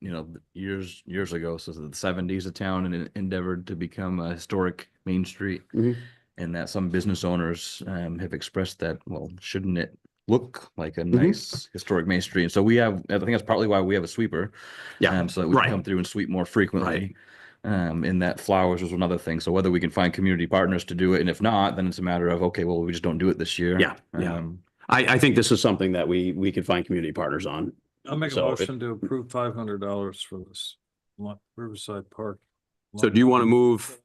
you know, th- years, years ago, so the seventies, the town and en- endeavored to become a historic main street. Mhm. And that some business owners um have expressed that, well, shouldn't it look like a Mhm. nice historic main street? And so we have, I think that's partly why we have a sweeper. Yeah, um, So that we right. can come through and sweep more frequently. Um, and that flowers was another thing. So whether we can find community partners to do it, and if not, then it's a matter of, okay, well, we just don't do it this year. Yeah, yeah. Um, I, I think this is something that we, we could find community partners on. I'll make a So it- motion to approve five hundred dollars for this lot- Riverside Park. So do you want to move,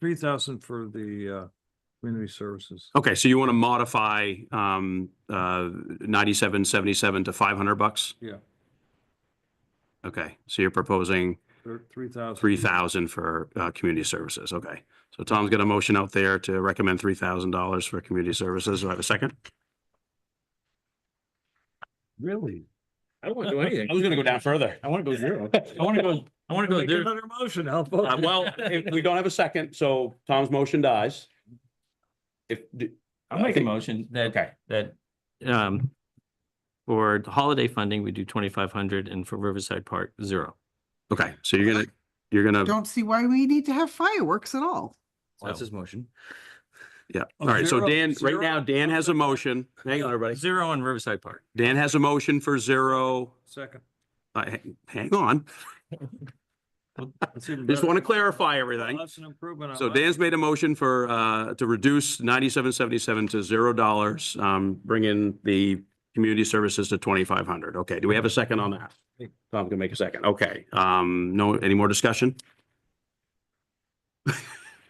Three thousand for the uh community services. Okay, so you want to modify um uh ninety-seven seventy-seven to five hundred bucks? Yeah. Okay, so you're proposing Three thousand. three thousand for uh community services, okay. So Tom's got a motion out there to recommend three thousand dollars for community services. Do I have a second? Really? I don't want to do anything. was gonna go down further. I want to go zero. I want to go, I want to go Make zero. another motion, I'll vote. Uh, well, if we don't have a second, so Tom's motion dies. If, I'll make a motion that, that, um, for holiday funding, we do twenty-five hundred and for Riverside Park, zero. okay, so you're gonna, you're gonna, don't see why we need to have fireworks at all. well, That's his motion. yeah, all right, so Zero- Dan, right zero- now, Dan has a motion. Hang on, everybody. Zero on Riverside Park. Dan has a motion for zero. Second. Uh, hang- hang on, That's even just better. want to clarify everything. That's an improvement. on So my- Dan's made a motion for, uh, to reduce ninety-seven seventy-seven to zero dollars, um, bring in the community services to twenty-five hundred. Okay, do we have a second on that? Tom can make a second. Okay, um, no, any more discussion?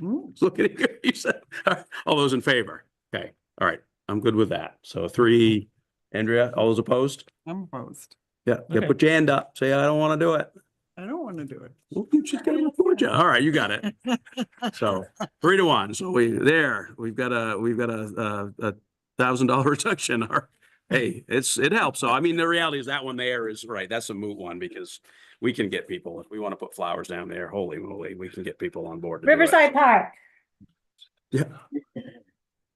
Ooh. Look at you, you said, all those in favor? Okay, all right, I'm good with that. So three, Andrea, all those opposed? I'm opposed. Yeah, yeah, Okay. put your hand up. Say, I don't want to do it. I don't want to do it. Well, you just gotta afford you. All right, you got it. So three to one. So we, there, we've got a, we've got a, a, a thousand dollar reduction. Or, hey, it's, it helps. So I mean, the reality is that one there is, right, that's a moot one because we can get people, if we want to put flowers down there, holy moly, we can get people on board. to do it. Riverside Park. Yeah.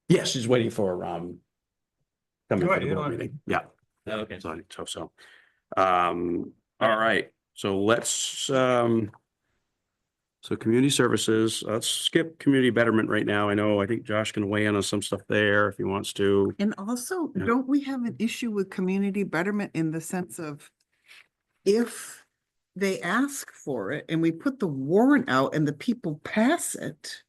Yes, she's waiting for, um, coming Right, for the you board know. meeting. Yeah. Okay. So, so, so, um, all right, so let's, um, so community services, let's skip community betterment right now. I know, I think Josh can weigh in on some stuff there if he wants to. And also, Yeah. don't we have an issue with community betterment in the sense of if they ask for it and we put the warrant out and the people pass it,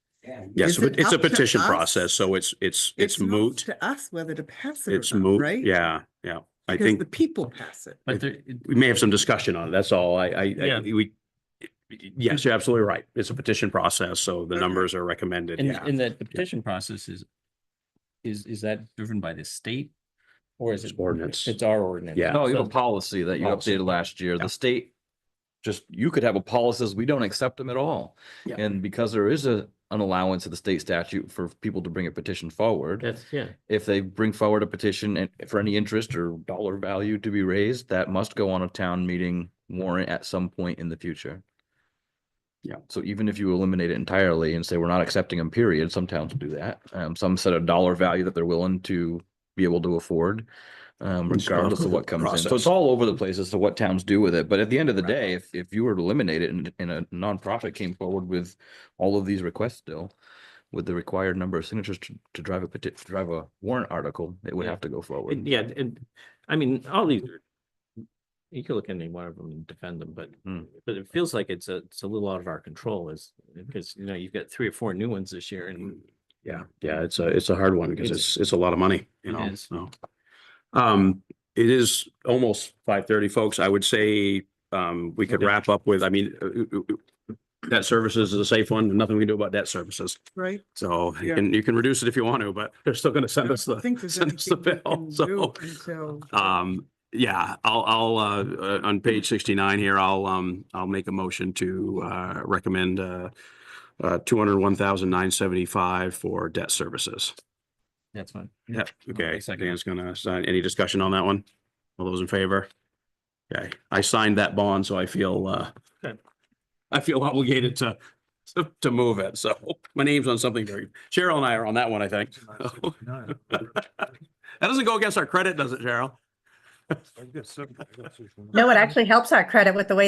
Yes, Is it but it's a up to petition us? process, so it's, it's, it's not moot. To us whether to pass it It's or not, moot, right? yeah, yeah. I Because think the people pass it. But there, we may have some discussion on it. That's all. I, I, I, Yeah. we, yes, you're absolutely right. It's a petition process, so the Okay. numbers are recommended. and, yeah. and that the petition process is, is, is that driven by the state? Or is it? It's ordinance. It's our ordinance. Yeah. No, you have a So- policy that you Policy. updated last year. Yeah. The state just, you could have a policy, says we don't accept them at all. Yeah. And because there is a, an allowance of the state statute for people to bring a petition forward, That's, yeah. if they bring forward a petition and for any interest or dollar value to be raised, that must go on a town meeting warrant at some point in the future. Yeah. So even if you eliminate it entirely and say we're not accepting them, period, some towns do that. Um, some set a dollar value that they're willing to be able to afford. Um, It's part regardless of of the what comes in. So process. it's all over the place as to what towns do with it. But at the end of the day, if, if you were to eliminate it and, and a nonprofit came forward with all of these requests still, with the required number of signatures to, to drive a peti- to drive a warrant article, it would Yeah. have to go And forward. yeah, and I mean, all these are. You can look at any one of them and defend them, but Hmm. Mm. but it feels like it's a, it's a little out of our control is, because, you know, you've got three or four new ones this year and. Yeah, yeah, it's a, it's a hard one because It's- it's, it's a lot of money, you It know, is. so. Um, it is almost five thirty, folks. I would say, um, we could Okay. wrap up with, I mean, uh, uh, uh, debt services is a safe one. Nothing we can do about debt services. Right? So you Yeah. can, you can reduce it if you want to, but they're still gonna send us I don't think the, there's send us the anything we bill, can do so. until- Um, yeah, I'll, I'll, uh, uh, on page sixty-nine here, I'll, um, I'll make a motion to, uh, recommend, uh, uh, two hundred one thousand nine seventy-five for debt services. That's fine. Yeah, okay, second. Dan's gonna sign, any discussion on that one? All those in favor? Okay, I signed that bond, so I feel, uh, Okay. I feel obligated to, to, to move it, so my name's on something very, Cheryl and I are on that one, I think. $969. That doesn't go against our credit, does it, Cheryl? I've got seven- I've got six more. No, it actually helps our credit with the way